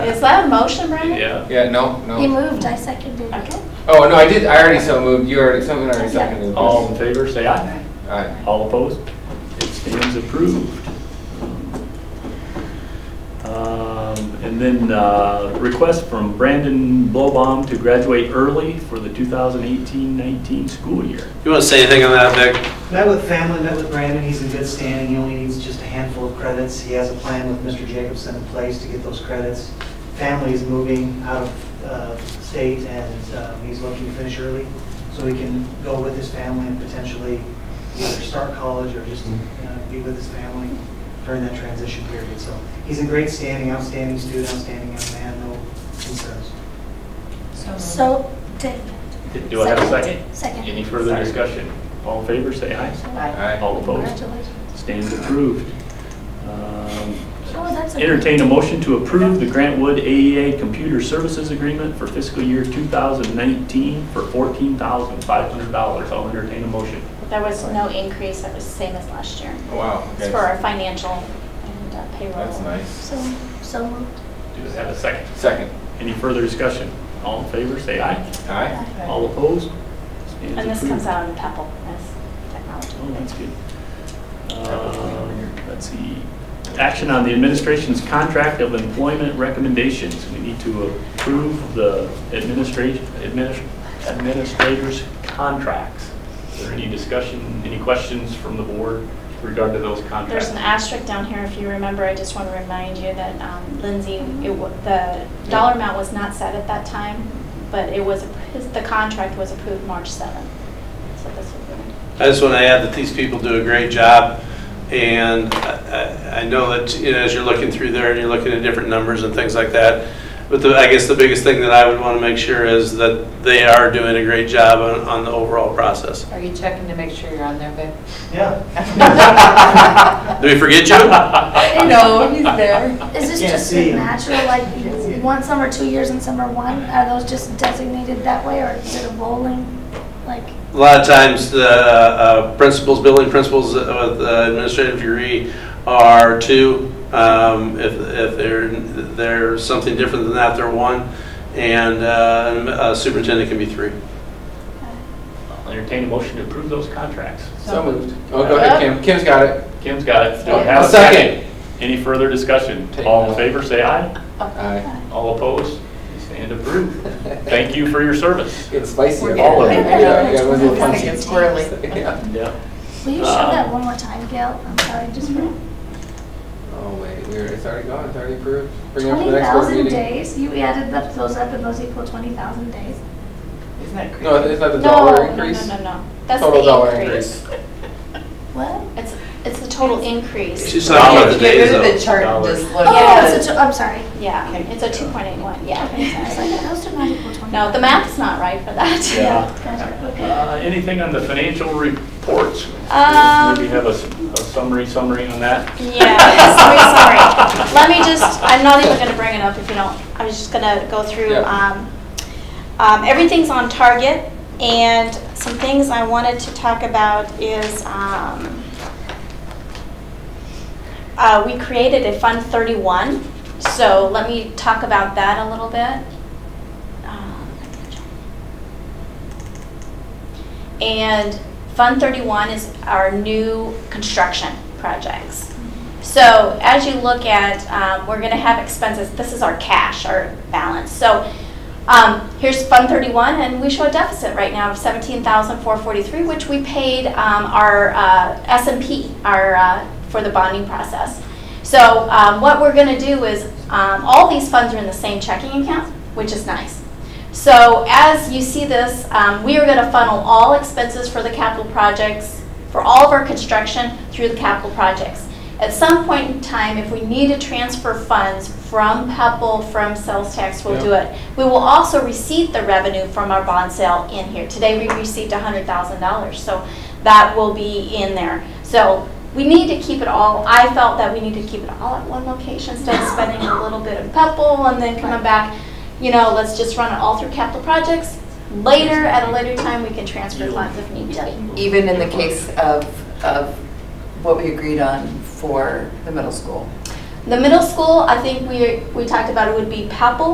Is that a motion, Brandon? Yeah. Yeah, no, no. He moved, I seconded it. Okay. Oh, no, I did, I already so moved, you already, someone already seconded this. All in favor, say aye. Alright, All opposed? It stands approved. Um, And then uh, request from Brandon Blobaum to graduate early for the 2018-19 school year. You want to say anything on that, Vic? Met with family, met with Brandon, he's in good standing, he only needs just a handful of credits. He has a plan with Mr. Jacobson in place to get those credits. Family is moving out of uh, state and uh, he's looking to finish early so he can go with his family and potentially either start college or just uh, be with his family during that transition period. So he's in great standing, outstanding student, outstanding young man, no concerns. So, Dave. Do I have a second? Second. Any further discussion? All in favor, say aye. alright. All opposed? Congratulations. Stands approved. Um, Oh, that's a- Entertain a motion to approve the Grantwood AEA Computer Services Agreement for fiscal year 2019 for $14,500. I'll entertain a motion. There was no increase, that was the same as last year. Oh, Wow, It's okay. for our financial and uh, payroll. That's nice. So, so moved. Do I have a second? Second. Any further discussion? All in favor, say aye. Alright, All opposed? And this comes out in PEPL, as Oh, technology. that's good. Um, Let's see. Action on the administration's contract of employment recommendations. We need to approve the administrat- adminis- administrator's contracts. Is there any discussion, any questions from the board regarding to those There's contracts? an asterisk down here, if you remember, I just want to remind you that um, Lindsay, it wa- the dollar amount was not set at that time, but it was, his- the contract was approved March 7th. So this would I just want to add that these people do a great job, and I I- I know that, you know, as you're looking through there and you're looking at different numbers and things like that, but the- I guess the biggest thing that I would want to make sure is that they are doing a great job on on the overall process. Are you checking to make sure you're on there, Vic? Yeah. Did we forget you? No, he's there. Is this Can't just see a 'em. natural, like, one summer, two years, and summer one? Are those just designated that way, or is it a rolling, like? A lot of times, the uh, principals, building principals with uh, administrative degree are two. Um, If if they're, they're something different than that, they're one. And uh, a superintendent can be three. I'll Entertain a motion to approve those contracts. so moved. Oh, go ahead, Kim, Kim's got it. Kim's got it. Do I have A second. Any further discussion? Take All in that. favor, say aye. Alright. All opposed? You Stand approved. Thank you for your service. It's spicy. We're up All of there. it. Yeah, yeah, it was a little It's like punchy. it's squirrely. Yeah. Yeah. Will you show Um, that one more time, Gail? I'm sorry, just Mm-hmm. for Oh, wait, we're, it's already gone, it's already approved. Bring it up for the twenty next board thousand meeting. days? You added up those up, and those equal twenty thousand days? Isn't that crazy? No, it's not the dollar No, no, increase? no, no, no. That's Total dollar the increase. increase. What? It's, it's the total increase. She's talking about the Get days, rid of though. the chart and just look Oh, at it's it. a, tw- I'm sorry. Yeah, Okay. it's a 2.81, I was yeah. like, those do not equal twenty. No, the math's not right for that. Yeah. Gotcha, okay. Uh, Anything on the financial reports? Um, Maybe have a s- a summary, summary on that? Yeah, sorry, sorry. Let me just, I'm not even gonna bring it up if you don't, I was just gonna go through, Yeah. um, um, everything's on target, and some things I wanted to talk about is, um, uh, we created a Fund 31, so let me talk about that a little bit. Um, And Fund 31 is our new construction projects. So as you look at, um, we're going to have expenses, this is our cash, our balance. So um, here's Fund 31, and we show a deficit right now of 17,443, which we paid um, our uh, S and P, our, uh, for the bonding process. So um, what we're going to do is, um, all these funds are in the same checking account, which is nice. So as you see this, um, we are going to funnel all expenses for the capital projects, for all of our construction through the capital projects. At some point in time, if we need to transfer funds from PEPAL, from sales tax, we'll do it. We will also receive the revenue from our bond sale in here. Today, we received $100,000, so that will be in there. So we need to keep it all, I felt that we need to keep it all at one location instead of spending a little bit in PEPAL and then coming back you know, let's just run it all through capital projects. Later, at a later time, we can transfer funds if need be. Even in the case of, of what we agreed on for the middle school. The middle school, I think we, we talked about it would be Papel